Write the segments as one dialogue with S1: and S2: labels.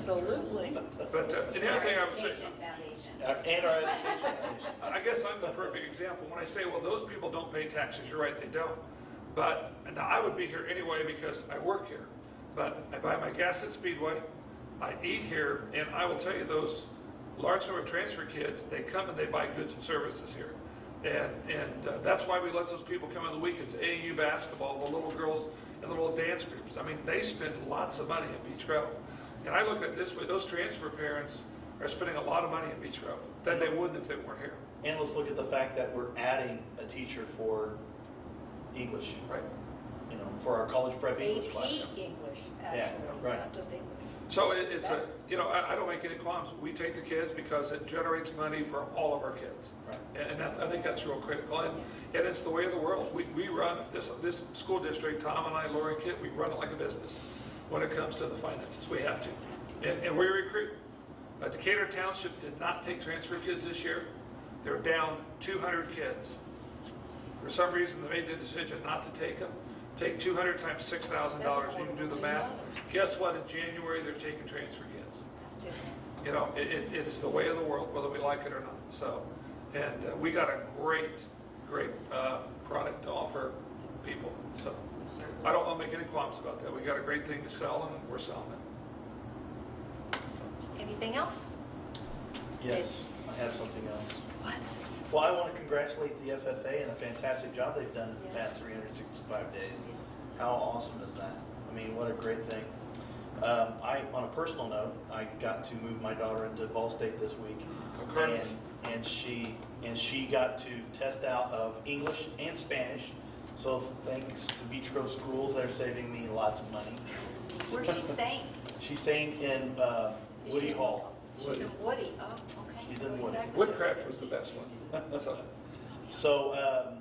S1: Absolutely.
S2: But uh, and the other thing I would say,
S3: Education Foundation.
S4: Our- Uh, And our education.
S2: I guess I'm the perfect example. When I say, well, those people don't pay taxes, you're right, they don't. But, and I would be here anyway because I work here. But I buy my gas at Speedway, I eat here, and I will tell you, those large number of transfer kids, they come and they buy goods and services here. And, and uh, that's why we let those people come on the weekends, AAU basketball, the little girls and the little dance groups. I mean, they spend lots of money at Beach Grove. And I look at it this way, those transfer parents are spending a lot of money at Beach Grove that they wouldn't if they weren't here.
S4: And let's look at the fact that we're adding a teacher for English,
S2: Right.
S4: you know, for our college prep English classroom.
S1: AP English, actually,
S4: right.
S1: not just English.
S2: So it- it's a, you know, I, I don't make any qualms. We take the kids because it generates money for all of our kids.
S4: Right.
S2: And- And that's, I think that's real critical. And, and it's the way of the world. We, we run, this, this school district, Tom and I, Lori and Kit, we run it like a business when it comes to the finances. We have to. And, and we recruit. Uh, Decatur Township did not take transfer kids this year. They're down 200 kids. For some reason, they made the decision not to take them. Take 200 times $6,000, you can do the math. Guess what? In January, they're taking transfer kids. You know, it, it it is the way of the world, whether we like it or not, so. And uh, we got a great, great uh, product to offer people, so. I don't want to make any qualms about that. We got a great thing to sell, and we're selling it.
S1: Anything else?
S4: Yes, I have something else.
S1: What?
S4: Well, I want to congratulate the FFA and the fantastic job they've done in the past 365 days. How awesome is that? I mean, what a great thing. Um, I, on a personal note, I got to move my daughter into Ball State this week.
S2: Cardinals.
S4: And, and she, and she got to test out of English and Spanish. So thanks to Beach Grove Schools, they're saving me lots of money.
S3: Where's she staying?
S4: She's staying in uh,
S3: Is
S4: Woody
S3: she-
S4: Hall.
S3: She's in Woody, oh, okay.
S4: She's in Woody.
S3: Exactly.
S2: Woodcraft was the best one, so.
S4: So um,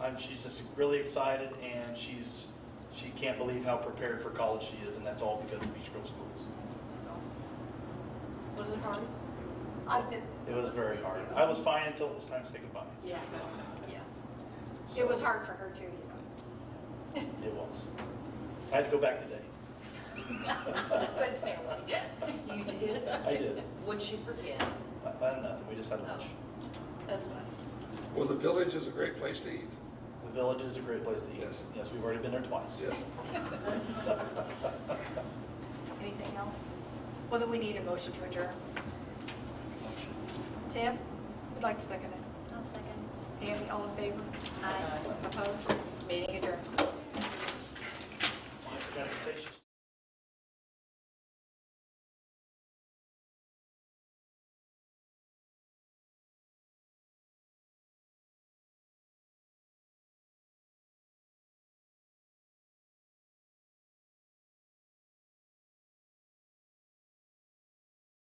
S4: I'm, she's just really excited, and she's she can't believe how prepared for college she is, and that's all because of Beach Grove Schools.
S1: Was it hard?
S3: I've been,
S4: It was very hard. I was fine until it was time to say goodbye.
S1: Yeah, yeah.
S4: So
S3: it was hard for her too, you know.
S4: It was. I had to go back today.
S3: Couldn't stay away.
S1: You did?
S4: I did.
S5: Would she forget? Oh.
S4: I planned nothing. We just had lunch.
S1: That's nice.
S2: Well, the village is a great place to eat.
S4: The village is a great place to eat.
S2: Yes.
S4: Yes, we've already been there twice.
S2: Yes.
S1: Anything else? Well, then we need a motion to adjourn. Tim, would like to second it.
S3: I'll second.
S1: Andy, all in favor? Aye. Opposed? Meeting adjourned.
S4: I forgot to say she's-